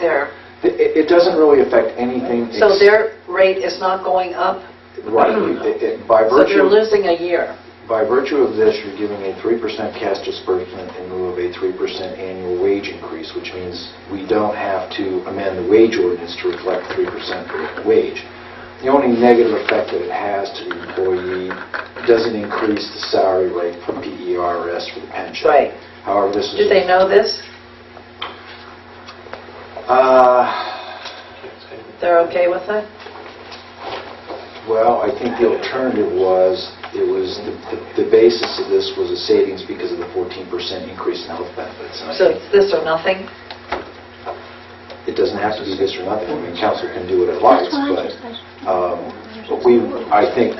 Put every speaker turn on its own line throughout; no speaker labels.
their,
It, it doesn't really affect anything.
so
ex-
their rate is not going up,
Right, It- it- by
so they're
virtue,
losing a year.
by virtue of this, you're giving a 3% cash disbursement in lieu of a 3% annual wage increase, which means we don't have to amend the wage ordinance to reflect 3% wage. The only negative effect that it has to the employee doesn't increase the salary rate for PERS for the pension.
Right.
However, this is...
Do they know this?
Uh,
They're okay with it?
Well, I think the alternative was, it was, the- the the basis of this was a savings because of the 14% increase in health benefits. And I
So
think
it's this or nothing?
it doesn't have to be this or nothing, I mean, council can do what it likes, but um, but we, I think,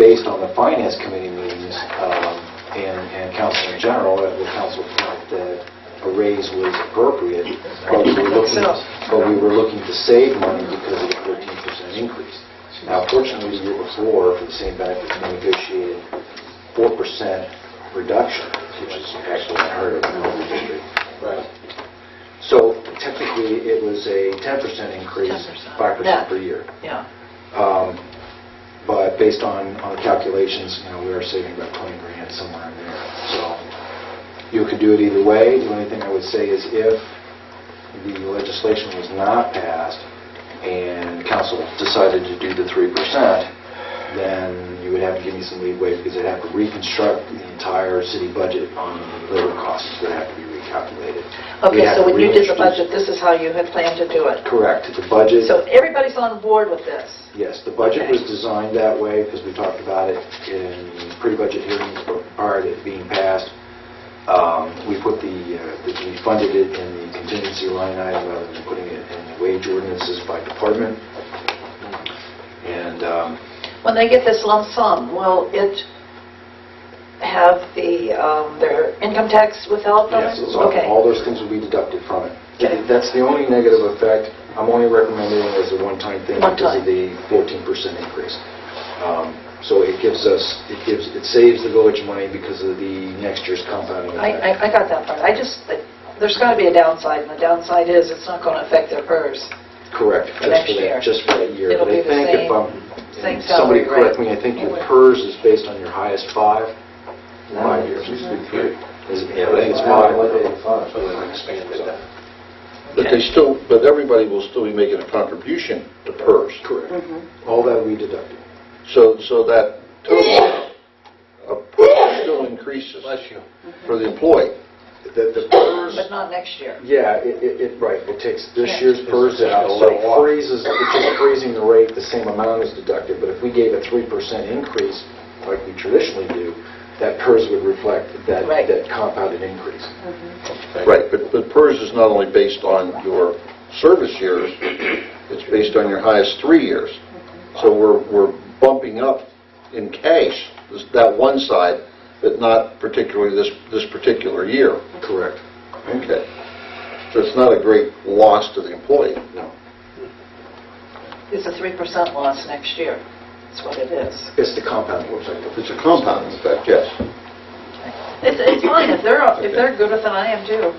based on the finance committee meetings um, and and council in general, that the council felt that a raise was appropriate, but we were looking,
So-
but we were looking to save money because of the 13% increase. Now, fortunately, the year before, for the same benefits, we negotiated 4% reduction, which is actually unheard of in the industry. So technically, it was a 10% increase,
10%.
5% per year.
Yeah.
Um, But based on, on the calculations, you know, we are saving about 20 grand somewhere in there. So you could do it either way. The only thing I would say is if the legislation was not passed and council decided to do the 3%, then you would have to give me some leeway because I'd have to reconstruct the entire city budget on labor costs that have to be recalculated. We'd
Okay,
have
so
to
when you did the
reintroduce-
budget, this is how you had planned to do it?
Correct. The budget.
So everybody's on board with this?
Yes, the budget was
Okay.
designed that way because we talked about it in pre-budget hearings prior to it being passed. Um, We put the, uh, the- we funded it in the contingency line item rather than putting it in the wage ordinances by department. And um,
When they get this lump sum, will it have the, um, their income tax withheld from it?
yes, it's all-
Okay.
all those things will be deducted from it.
Okay.
That's the only negative effect. I'm only recommending it as a one-time thing
One
because
time.
of the 14% increase. Um, So it gives us, it gives, it saves the village money because of the next year's compounding.
I,
effect.
I- I got that part. I just, there's got to be a downside, and the downside is it's not going to affect their PERS.
Correct,
For
just
next
for
year.
that, just for that year.
It'll
But
be
I
the
think if
same-
I'm-
same salary,
Somebody correct
right?
me, I think your PERS is based on your highest five, five years.
Used to be three.
Is it- Yeah, I think it's five.
So they expanded that.
But they still, but everybody will still be making a contribution to PERS.
Correct.
Mm-hmm.
All that we deducted.
So, so that total of PERS still increases
Bless you.
for the employee.
The the PERS...
But not next year.
Yeah, it, it, it- right, it takes this
Yeah.
year's PERS out, so it
It's a lot.
freezes, it's just freezing the rate, the same amount is deducted, but if we gave a 3% increase, like we traditionally do, that PERS would reflect that,
Right. Mm-hmm.
that compounded increase.
Right, but, but PERS is not only based on your service years, it's based on your highest three years. So we're, we're bumping up in cash, this- that one side, but not particularly this, this particular year.
Correct.
Okay. So it's not a great loss to the employee.
No.
It's a 3% loss next year. That's what it is.
It's the compounding effect.
It's a compounding effect, yes.
It's, it's fine, if they're, if they're good with it, I am too.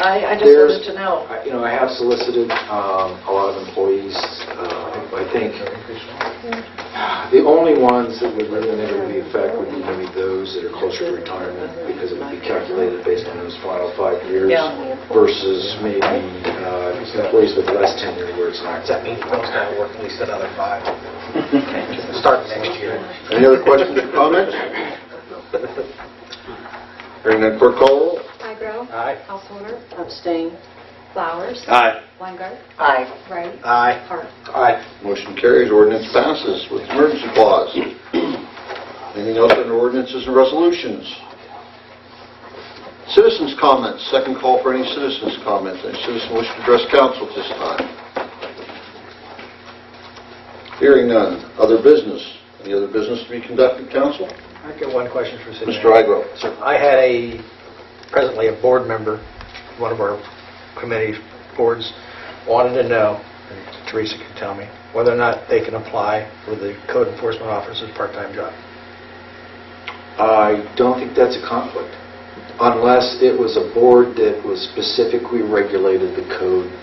I, I just
There's-
wanted to know.
I- You know, I have solicited um, a lot of employees, uh, I think, the only ones that would really negatively affect would be maybe those that are closer to retirement, because it would be calculated based on those final five years
Yeah.
versus maybe uh, employees with less tenure where it's not.
Does that mean Phil's got to work at least another five? Start next year.
Any other questions or comments? Hearing none, clerk call the roll.
Migro.
Aye.
Householder.
Abstain.
Flowers.
Aye.
Weingart.
Aye.
Wright.
Aye.
Hart.
Aye.
Motion carries, ordinance passes with emergency clause. Anything else under ordinances and resolutions? Citizens' comments, second call for any citizens' comments. Any citizen wish to address council at this time? Hearing none. Other business? Any other business to be conducted, council?
I've got one question for City
Mr.
Manager.
Igo.
Sir, I had a, presently a board member, one of our committee boards, wanted to know, and Teresa can tell me, whether or not they can apply for the code enforcement officer's part-time job.
I don't think that's a conflict, unless it was a board that was specifically regulated the code